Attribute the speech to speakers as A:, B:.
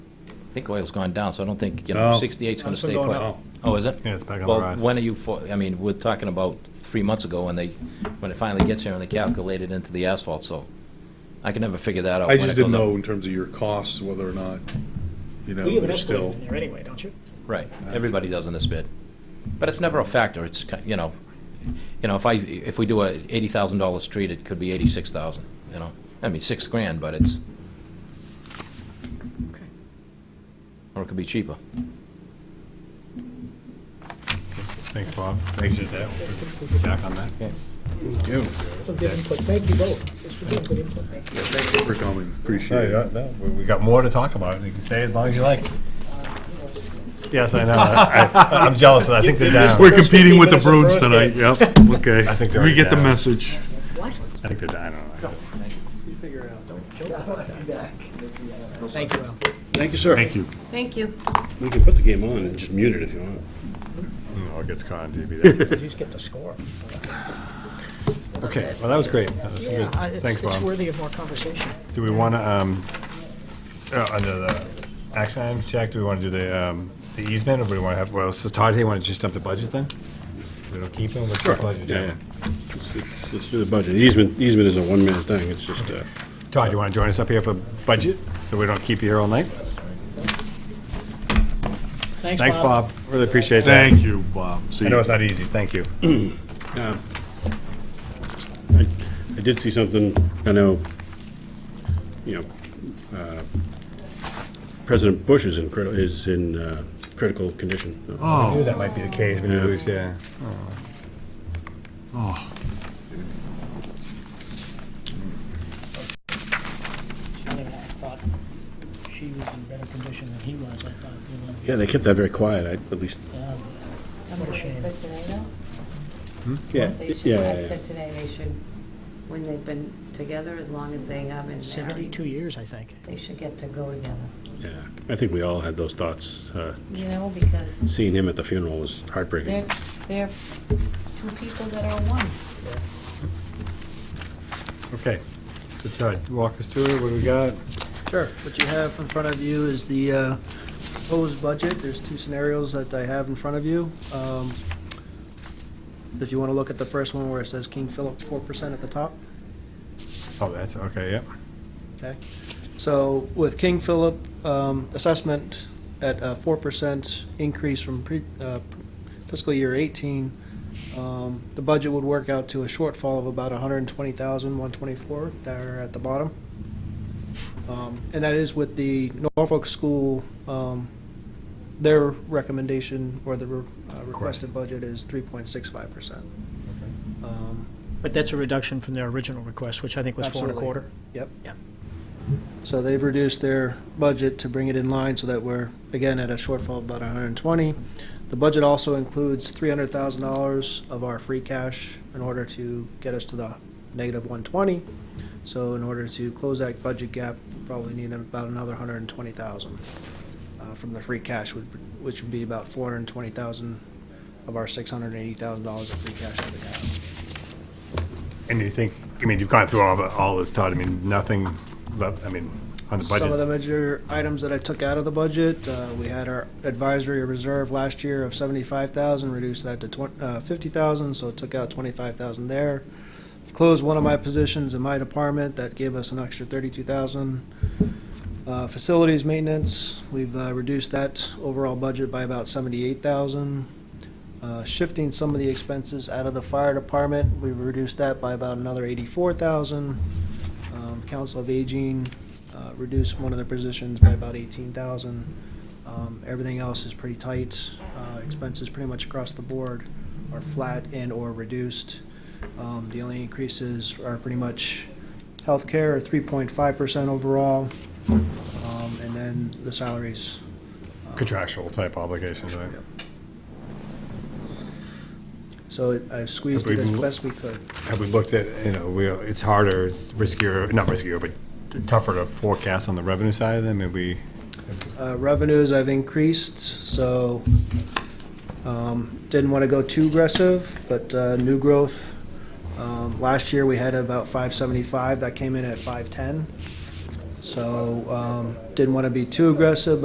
A: I think oil's gone down, so I don't think, you
B: No.
A: know, 68's going to
C: It's been
A: stay
C: going
A: put.
C: up.
A: Oh, is it?
B: Yeah, it's back on the
A: Well,
B: rise.
A: when are you, for- I mean, we're talking about three months ago when they, when it finally gets here and they calculate it into the asphalt, so I can never figure that out.
B: I
A: when
B: just
A: it goes
B: didn't
A: up.
B: know in terms of your costs, whether or not, you know,
C: You have an
B: you're
C: escalator
B: still.
C: in there anyway, don't you?
A: Right, everybody does in this bid. But it's never a factor, it's, ki- you know, you know, if I, if we do a $80,000 street, it could be 86,000, you know? I mean, six grand, but it's, or it could be cheaper.
D: Thanks, Bob. Thanks for that. Jack on that.
B: Yeah,
C: Some good input. Thank you both. This was good input. Thank you.
B: Thank you for coming,
D: No,
B: appreciate
D: you
B: it.
D: don't- uh, no, we- we got more to talk about. You can stay as long as you like. Yes, I know. I- I'm jealous. I think they're down.
B: We're
C: First
B: competing
C: 15
B: with the
C: minutes
B: Bruins
C: of Bruins
B: tonight, yep, okay.
D: I think they're
B: We get the
D: down.
B: message.
D: I think they're down. I don't know.
C: Thank you, Al.
E: Thank you, sir.
D: Thank you.
F: Thank you.
E: We can put the game on and just mute it if you want.
D: No, it gets caught on TV. That's-
C: You just get the score.
D: Okay, well, that was great. That was
C: Yeah,
D: good.
C: I- it's,
D: Thanks,
C: it's
D: Bob.
C: worthy of more conversation.
D: Do we want to, um, uh, under the action items, Jack, do we want to do the, um, the easement or do we want to have, well, so Todd, hey, want to just dump the budget then? We don't keep him, what's the budget
E: Yeah.
D: doing?
E: Let's do- Let's do the budget. Easement, easement is a one-minute thing. It's just, uh,
D: Todd, you want to join us up here for budget, so we don't keep you here all night? Thanks, Bob, really appreciate that.
B: Thank you, Bob. See
D: I know
B: you.
D: it's not easy, thank you.
E: uh, I I did see something, I know, you know, uh, President Bush is in critical, is in uh, critical condition.
D: I knew
B: Oh,
D: that might be the case, but at least, yeah.
B: oh,
C: I mean, I thought she was in better condition than he was, I thought, you uh, know.
E: Yeah, they kept that very quiet, I- at least.
C: Yeah.
F: That's what I said today, though.
E: Yeah,
F: They should, I
E: yeah,
F: said today, they should, when they've been together, as long as they have been married,
C: Seventy-two years, I think.
F: they should get to go together.
E: yeah. I think we all had those thoughts. Uh,
F: You know, because
E: Seeing him at the funeral was heartbreaking.
F: they're, they're two people that are one.
D: Okay, so Todd, walk us through it, what do we got?
G: Sure. What you have in front of you is the uh, proposed budget. There's two scenarios that I have in front of you. Um, If you want to look at the first one where it says King Philip 4% at the top,
D: Oh, that's, okay, yep.
G: okay? So with King Philip um, assessment at a 4% increase from pre- uh, fiscal year 18, um, the budget would work out to a shortfall of about 120,124 there at the bottom. Um, And that is with the Norfolk School, um, their recommendation or the re- uh, requested budget is 3.65%. Um,
C: But that's a reduction from their original request, which I think was four and a quarter.
G: Absolutely. Yep.
C: Yeah.
G: So they've reduced their budget to bring it in line so that we're, again, at a shortfall of about hundred and twenty. The budget also includes three hundred thousand dollars of our free cash in order to get us to the negative one twenty. So in order to close that budget gap, we probably need about another hundred and twenty thousand uh, from the free cash, would- which would be about four hundred and twenty thousand of our six hundred and eighty thousand dollars of free cash that we have.
D: And you think, I mean, you've gone through all, the- all this, Todd, I mean, nothing left, I mean, on the
G: Some of the
D: budget.
G: major items that I took out of the budget, uh, we had our advisory reserve last year of seventy-five thousand, reduced that to twen- uh, fifty thousand, so took out twenty-five thousand there. Closed one of my positions in my department, that gave us an extra thirty-two thousand. Uh, facilities maintenance, we've, uh, reduced that overall budget by about seventy-eight thousand. Uh, shifting some of the expenses out of the fire department, we've reduced that by about another eighty-four thousand. Um, Council of Aging, uh, reduced one of their positions by about eighteen thousand. Um, everything else is pretty tight. Uh, expenses pretty much across the board are flat and or reduced. Um, the only increases are pretty much healthcare, three point five percent overall. Um, and then the salaries. uh,
D: Contractual type obligations, right?
G: So it- I squeezed
D: Have
G: it
D: we
G: as
D: lo-
G: best we could.
D: Have we looked at, you know, we, it's harder, it's riskier, not riskier, but tougher to forecast on the revenue side of them, maybe?
G: Uh, Revenues I've increased, so um, didn't want to go too aggressive, but uh, new growth, um, last year we had about 575, that came in at 510. So um, didn't want to be too aggressive,